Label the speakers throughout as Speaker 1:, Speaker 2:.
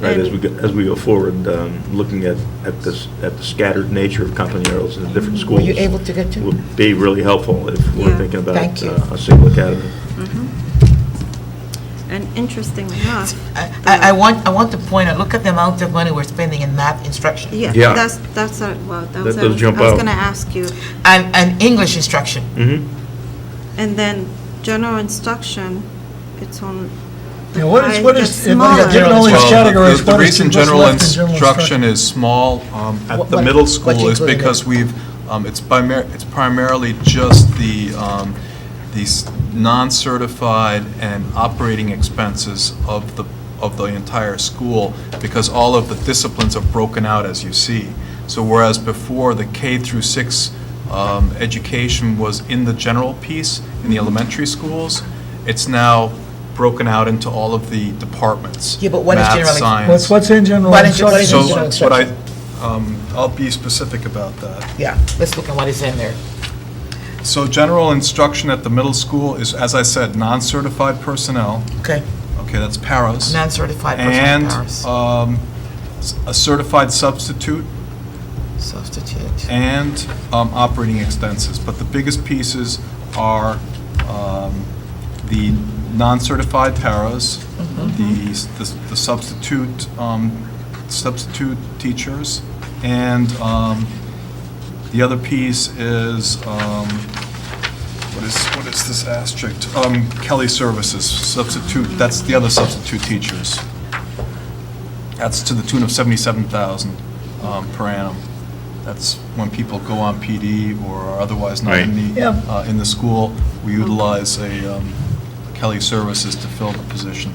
Speaker 1: right, as we, go- as we go forward, um, looking at, at this, at the scattered nature of Companeros and the different schools.
Speaker 2: Were you able to get to-
Speaker 1: Would be really helpful if we're
Speaker 3: Yeah.
Speaker 1: thinking about
Speaker 2: Thank you.
Speaker 1: uh, a single academy.
Speaker 3: And interestingly enough. uh,
Speaker 2: I- I, I
Speaker 3: the-
Speaker 2: want, I want to point out, look at the amount of money we're spending in math instruction.
Speaker 3: Yeah,
Speaker 1: Yeah.
Speaker 3: that's, that's, a- well, that was, I
Speaker 1: does
Speaker 3: was
Speaker 1: jump out.
Speaker 3: going to ask you.
Speaker 2: And, and English instruction.
Speaker 1: Mm-hmm.
Speaker 3: And then general instruction, it's on. the
Speaker 4: Yeah, what is,
Speaker 3: pie
Speaker 4: what
Speaker 3: gets
Speaker 4: is, if I got
Speaker 3: smaller.
Speaker 4: given all these
Speaker 5: Well, the-
Speaker 4: categories,
Speaker 5: The
Speaker 4: what is,
Speaker 5: reason
Speaker 4: what's
Speaker 5: general
Speaker 4: left in general instruction?
Speaker 5: instruction is small um,
Speaker 2: What-
Speaker 5: at the
Speaker 2: what-
Speaker 5: middle
Speaker 2: what's
Speaker 5: school is
Speaker 2: included?
Speaker 5: because we've, um, it's primar- it's primarily just the, um, these non-certified and operating expenses of the, of the entire school, because all of the disciplines are broken out, as you see. So whereas before, the K through six um, education was in the general piece, in the elementary schools, it's now broken out into all of the departments.
Speaker 2: Yeah, but what is
Speaker 5: Math,
Speaker 2: general-
Speaker 5: science.
Speaker 4: What's, what's in general
Speaker 2: Why don't you- why don't you
Speaker 4: instruction?
Speaker 5: So,
Speaker 2: general
Speaker 5: what I,
Speaker 2: instruction?
Speaker 5: um, I'll be specific about that.
Speaker 2: Yeah, let's look at what is in there.
Speaker 5: So general instruction at the middle school is, as I said, non-certified personnel.
Speaker 2: Okay,
Speaker 5: Okay, that's paras.
Speaker 2: non-certified
Speaker 5: And
Speaker 2: personnel hours,
Speaker 5: um, s- a certified substitute
Speaker 2: substitute.
Speaker 5: and um, operating expenses. But the biggest pieces are um, the non-certified paras,
Speaker 2: Mm-hmm.
Speaker 5: the s- the s- the substitute, um, substitute teachers, and um, the other piece is, um, what is, what is this asterisk? Um, Kelly Services, substitute, that's the other substitute teachers. That's to the tune of 77,000 um, per annum. That's when people go on PD or are otherwise not in the,
Speaker 4: Yeah.
Speaker 5: uh, in the school. We utilize a um, Kelly Services to fill the position.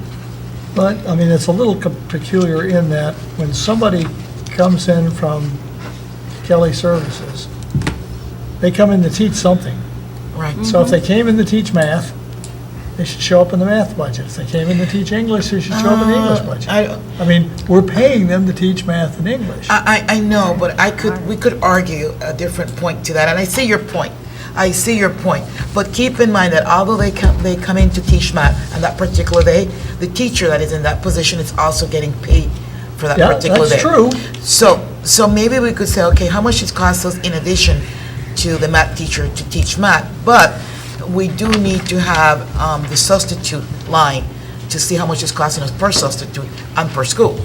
Speaker 4: But, I mean, it's a little co- peculiar in that when somebody comes in from Kelly Services, they come in to teach something.
Speaker 2: Right,
Speaker 4: So if they came in to teach math, they should show up in the math budget. If they came in to teach English, they should show up in the English budget.
Speaker 2: Uh, I- Uh,
Speaker 4: I mean, we're paying them to teach math and English.
Speaker 2: I, I, I know, but I could, we could argue a different point to that, and I see your point. I see your point, but keep in mind that although they come, they come in to teach math on that particular day, the teacher that is in that position is also getting paid for that
Speaker 4: Yeah,
Speaker 2: particular day.
Speaker 4: that's true.
Speaker 2: So, so maybe we could say, okay, how much it costs us in addition to the math teacher to teach math? But we do need to have um, the substitute line to see how much it's costing us per substitute and per school.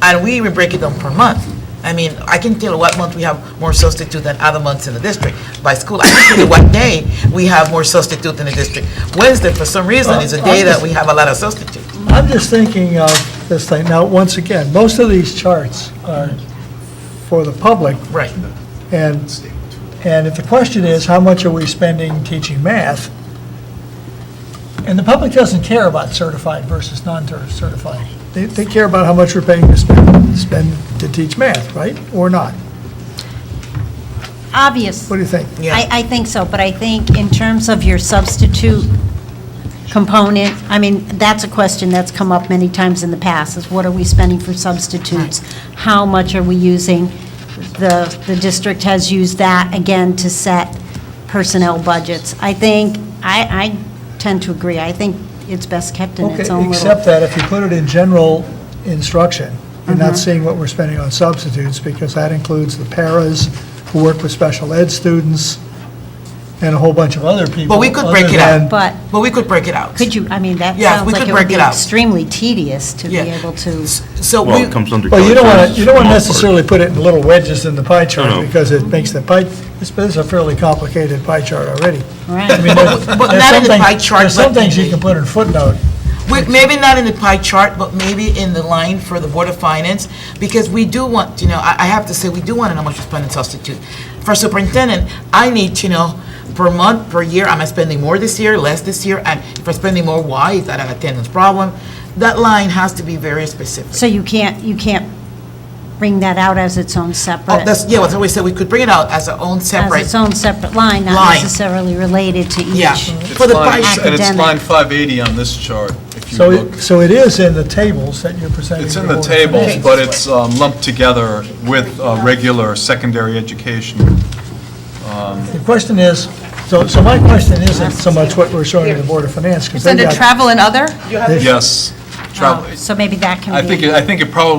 Speaker 2: And we even break it down per month. I mean, I can tell what month we have more substitute than other months in the district by school. I can tell you what day we have more substitute in the district. Wednesday, for some
Speaker 4: Uh,
Speaker 2: reason, is a day that we have a lot of substitute.
Speaker 4: I'm just thinking of this thing. Now, once again, most of these charts are for the public,
Speaker 2: Right.
Speaker 4: and, and if the question is, how much are we spending teaching math? And the public doesn't care about certified versus non-certified. They, they care about how much we're paying to spend, spend to teach math, right? Or not?
Speaker 6: Obvious.
Speaker 4: What do you think?
Speaker 2: Yeah.
Speaker 6: I, I think so, but I think in terms of your substitute component, I mean, that's a question that's come up many times in the past, is what are we spending for substitutes? How much are we using? The, the district has used that, again, to set personnel budgets. I think, I, I tend to agree. I think it's best kept in its
Speaker 4: Okay,
Speaker 6: own
Speaker 4: except
Speaker 6: little.
Speaker 4: that if you put it in general instruction, you're
Speaker 6: Mm-hmm.
Speaker 4: not seeing what we're spending on substitutes, because that includes the paras who work with special ed students, and a whole bunch of other people.
Speaker 2: But we could break
Speaker 4: other
Speaker 2: it out.
Speaker 4: than-
Speaker 6: But
Speaker 2: But we could break it out.
Speaker 6: could you, I mean, that
Speaker 2: Yeah,
Speaker 6: sounds
Speaker 2: we
Speaker 6: like
Speaker 2: could
Speaker 6: it
Speaker 2: break
Speaker 6: would be
Speaker 2: it out.
Speaker 6: extremely tedious to be
Speaker 2: Yeah.
Speaker 6: able to.
Speaker 2: So we.
Speaker 1: Well, it comes under.
Speaker 4: Well, you don't want to,
Speaker 1: Kelly
Speaker 4: you don't want to
Speaker 1: Services for the most
Speaker 4: necessarily put it in little wedges in the pie
Speaker 1: No,
Speaker 4: chart,
Speaker 1: no.
Speaker 4: because it makes the pie, this this is a fairly complicated pie chart already.
Speaker 6: Right.
Speaker 4: I mean, there's-
Speaker 2: But
Speaker 4: there's
Speaker 2: not in the
Speaker 4: some
Speaker 2: pie
Speaker 4: things-
Speaker 2: chart,
Speaker 4: There's some
Speaker 2: but-
Speaker 4: things you can put in footnote.
Speaker 2: We- Maybe not in the pie chart, but maybe in the line for the Board of Finance, because we do want, you know, I, I have to say, we do want to know how much we spend in substitute. For superintendent, I need to know per month, per year, am I spending more this year, less this year? And if I'm spending more, why? Is that an attendance problem? That line has to be very specific.
Speaker 6: So you can't, you can't bring that out as its own
Speaker 2: Oh,
Speaker 6: separate, as
Speaker 2: that's, yeah, that's what we said, we could bring it out as our own separate.
Speaker 6: its own separate line, not
Speaker 2: Line.
Speaker 6: necessarily related to
Speaker 2: Yeah.
Speaker 6: each.
Speaker 5: It's
Speaker 2: For the
Speaker 5: line-
Speaker 2: pie
Speaker 5: And it's
Speaker 6: Academic.
Speaker 5: line 580 on this chart, if you
Speaker 4: So,
Speaker 5: look.
Speaker 4: it- so it is in the tables that you're presenting.
Speaker 5: It's
Speaker 4: to
Speaker 5: in the
Speaker 4: Board of Finance.
Speaker 5: tables, but it's um, lumped together with uh, regular secondary education.
Speaker 4: The question is, so, so my question isn't so much what we're showing to the Board of Finance, because they
Speaker 7: Send a
Speaker 4: got
Speaker 7: travel and other?
Speaker 5: Yes. travel.
Speaker 6: So maybe that can be.
Speaker 5: I think, it- I think it probably